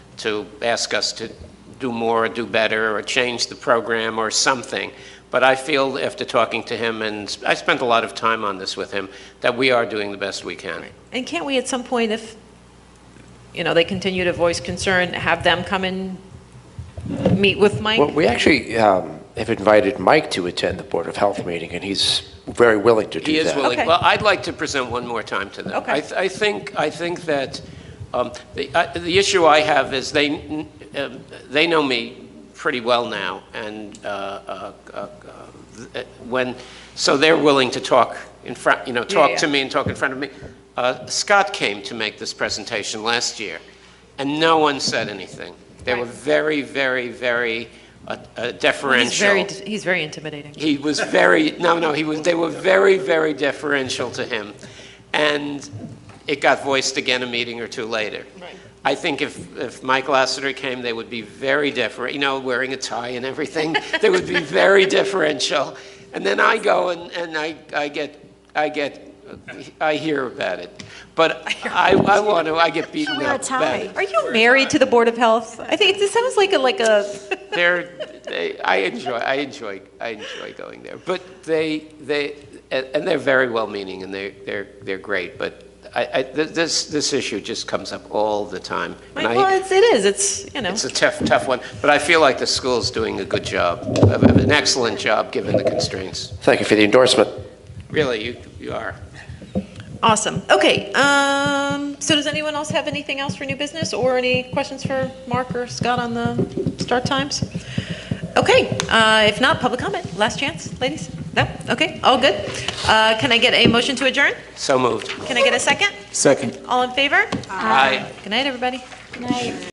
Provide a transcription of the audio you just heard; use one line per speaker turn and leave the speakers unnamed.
to ask us to do more or do better or change the program or something. But I feel after talking to him, and I spent a lot of time on this with him, that we are doing the best we can.
And can't we at some point, if, you know, they continue to voice concern, have them come and meet with Mike?
Well, we actually um, have invited Mike to attend the Board of Health meeting, and he's very willing to
He
do
is
that.
willing.
Okay.
Well, I'd like to present one more time to them.
Okay.
I th- I think, I think that um, the I- the issue I have is they, um, they know me pretty well now, and uh, uh, uh, uh, when, so they're willing to talk in front, you know, talk to
yeah.
me and talk in front of me. Uh, Scott came to make this presentation last year, and no one said anything. They were
Right.
very, very, very uh, uh, deferential.
He's very, he's very intimidating.
He was very, no, no, he was, they were very, very deferential to him. And it got voiced again a meeting or two later.
Right.
I think if, if Mike Lassiter came, they would be very deferent, you know, wearing a tie and everything. They would be very deferential. And then I go and, and I, I get, I get, I hear about it. But I, I want to, I get beaten
Wear a
up about
tie.
it.
Are you married to the Board of Health? I think it sounds like a, like a,
They're, they, I enjoy, I enjoy, I enjoy going there. But they, they, and and they're very well-meaning, and they're, they're, they're great, but I, I, th- this, this issue just comes up all the time. And
well,
I,
it's, it is, it's, you know,
it's a tough, tough one, but I feel like the school's doing a good job, an excellent job, given the constraints.
Thank you for the endorsement.
Really, you, you are.
awesome. Okay, um, so does anyone else have anything else for new business or any questions for Mark or Scott on the start times? Okay, uh, if not, public comment, last chance, ladies? No? Okay, all good. Uh, can I get a motion to adjourn?
So moved.
Can I get a second?
Second.
All in favor?
Aye.
Good night, everybody.
Good night.